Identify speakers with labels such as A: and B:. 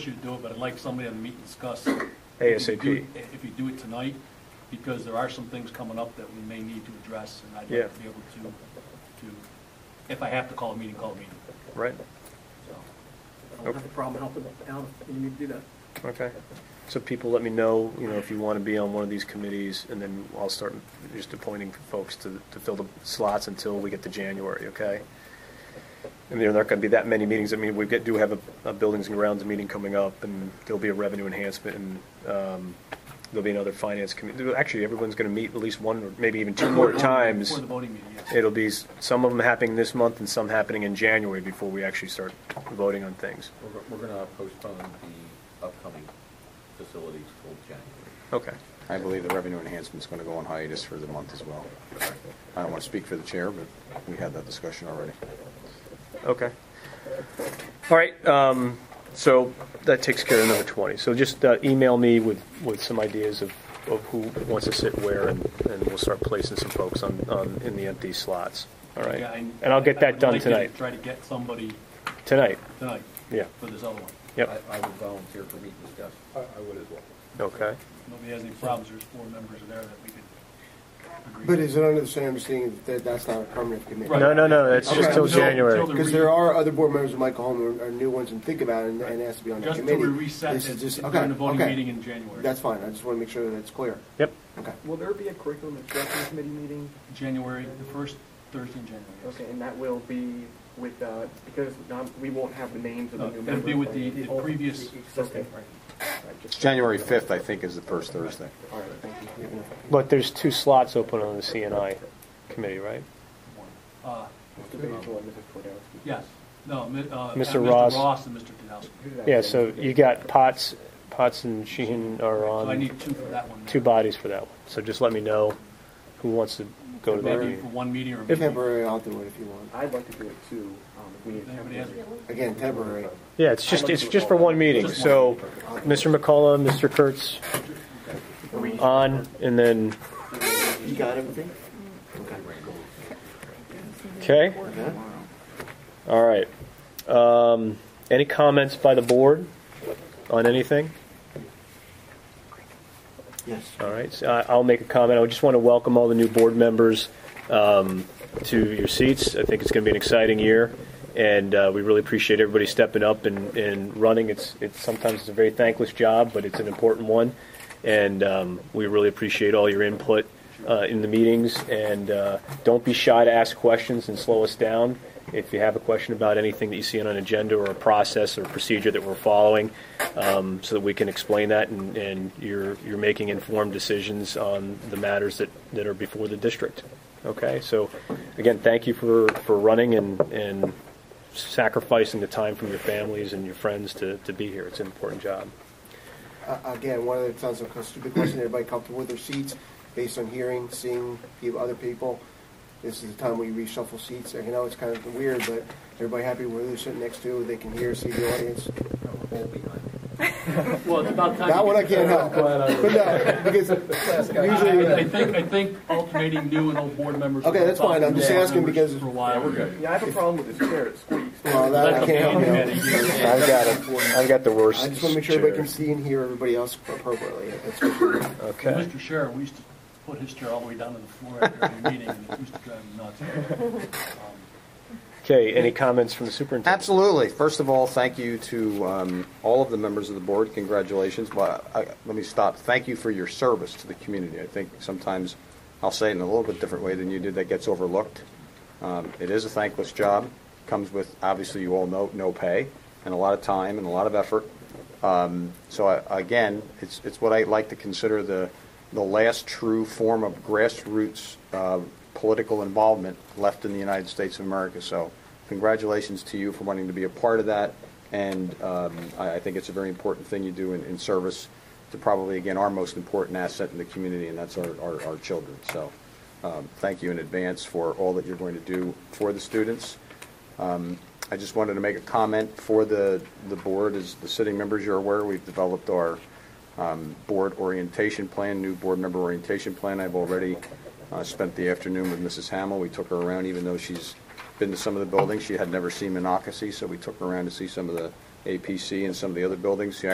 A: should do it, but I'd like somebody on the meet and discuss.
B: ASAP.
A: If you do it- If you do it tonight, because there are some things coming up that we may need to address, and I'd
B: Yeah.
A: like to be able to, to, if I have to call a meeting, call a meeting,
B: right?
A: so.
C: I don't have a problem helping out if you need to do that.
B: Okay. So people let me know, you know, if you want to be on one of these committees, and then I'll start just appointing folks to, to fill the slots until we get to January, okay? And there aren't going to be that many meetings. I mean, we get- do have a, a Buildings and Grounds meeting coming up, and there'll be a revenue enhancement, and um, there'll be another finance committee. Actually, everyone's going to meet at least one, or maybe even two more times.
A: Before the voting meeting, yes.
B: It'll be, s- some of them happening this month and some happening in January before we actually start voting on things.
D: We're, go- we're gonna postpone the upcoming facilities till January.
B: Okay.
E: I believe the revenue enhancement's going to go on hiatus for the month as well. I don't want to speak for the chair, but we had that discussion already.
B: Okay. All right, um, so that takes care of number 20. So just uh, email me with, with some ideas of, of who wants to sit where, and, and we'll start placing some folks on, on, in the empty slots, all right?
A: Yeah,
B: And I'll get
A: I
B: that
A: would
B: done
A: like to
B: tonight,
A: Try to get somebody
B: tonight,
A: tonight
B: yeah,
A: for this other one.
B: yep,
D: I, I would volunteer for meet and discuss. I would as well.
B: okay.
A: Nobody has any problems, there's four members there that we could agree.
F: But
A: with.
F: is it under the same understanding that that's not a permanent committee?
A: Right.
B: No, no, no, that's just
F: Okay.
B: till
F: Until-
B: January.
A: until
F: Because there are other board members who might go home or- or new ones and think about it and- and ask to be on that
A: Just
F: committee.
A: until we reset
F: This is
A: it
F: just-
A: during the
F: okay,
A: voting
F: okay.
A: meeting in January.
F: That's fine, I just want to make sure that it's clear.
B: Yep,
F: Okay.
C: Will there be a curriculum instruction committee meeting?
A: January, the first Thursday in January. yes.
C: Okay, and that will be with, uh, because not, we won't have the names of the
A: No,
C: new
A: that'd
C: members.
A: Uh, be with the-
C: right?
A: the
C: old-
A: previous-
C: Okay, right. Right, just-
E: January 5th, I think, is the first Thursday.
C: All right, thank you.
B: but there's two slots open on the CNI committee, right?
A: Uh,
C: Mr. Basil and Mrs. Twardowski.
A: Yes, no, mi- uh,
B: Mr.
A: Mr.
B: Ross.
A: Ross and Mr. Kudowski.
C: Who did I
B: Yeah,
C: say?
B: so you got Potts, Potts and Sheehan are on.
A: So I need two for that one.
B: two bodies for that one. So just let me know who wants to go to that
A: Maybe for
B: meeting.
A: one meeting or. maybe-
F: Temporary, I'll do it if you want.
C: I'd like to do it too, um, if we need.
A: Anybody has-
F: Again, temporary.
B: Yeah, it's just, it's just for one meeting. So Mr. McCullough, Mr. Kurtz on, and then,
F: You got everything?
B: okay? All right. Um, Any comments by the board on anything?
F: Yes.
B: All right, so I- I'll make a comment. I just want to welcome all the new board members um, to your seats. I think it's going to be an exciting year, and uh, we really appreciate everybody stepping up and, and running. It's, it's sometimes it's a very thankless job, but it's an important one, and um, we really appreciate all your input uh, in the meetings. And uh, don't be shy to ask questions and slow us down. If you have a question about anything that you see on an agenda or a process or procedure that we're following, um, so that we can explain that and, and you're, you're making informed decisions on the matters that, that are before the district. Okay, so again, thank you for, for running and, and sacrificing the time from your families and your friends to, to be here. It's an important job.
F: Uh, Again, one of the, sounds like a stupid question, everybody comfortable with their seats, based on hearing, seeing people, other people. This is the time we reshuffle seats, I know it's kind of weird, but everybody happy where they're sitting next to, they can hear, see the audience.
D: All behind.
A: Well, it's about time.
F: That
A: you
F: one I
A: get-
F: can't help, but no, because usually.
A: I I think, I think alternating new and old board members.
F: Okay, that's fine. I'm just
A: Board
F: asking
A: members
F: because-
A: For a while. we're good.
C: Yeah, I have a problem with this chair, it squeaks.
F: Well, that I can't help you.
B: I've got, a, I've got the worst.
F: I just want to make sure everybody can see and hear everybody else appropriately. That's what we're doing.
B: Okay.
A: Mr. Scherer, we used to put his chair all the way down to the floor after every meeting, and it used to drive him nuts. Um,
B: Okay, any comments from the superintendent?
E: Absolutely. First of all, thank you to um, all of the members of the board. Congratulations. But I, let me stop. Thank you for your service to the community. I think sometimes I'll say it in a little bit different way than you did. That gets overlooked. Um, it is a thankless job. Comes with obviously you all know no pay and a lot of time and a lot of effort. Um, so I, again, it's it's what I like to consider the the last true form of grassroots uh, political involvement left in the United States of America. So congratulations to you for wanting to be a part of that, and um, I, I think it's a very important thing you do in, in service to probably again our most important asset in the community, and that's our our, our children. So. Um, Thank you in advance for all that you're going to do for the students. Um, I just wanted to make a comment for the, the board, as the sitting members, you're aware, we've developed our um, board orientation plan, new board member orientation plan. I've already uh, spent the afternoon with Mrs. Hamill. We took her around, even though she's been to some of the buildings, she had never seen Monocacy, so we took her around to see some of the APC and some of the other buildings, you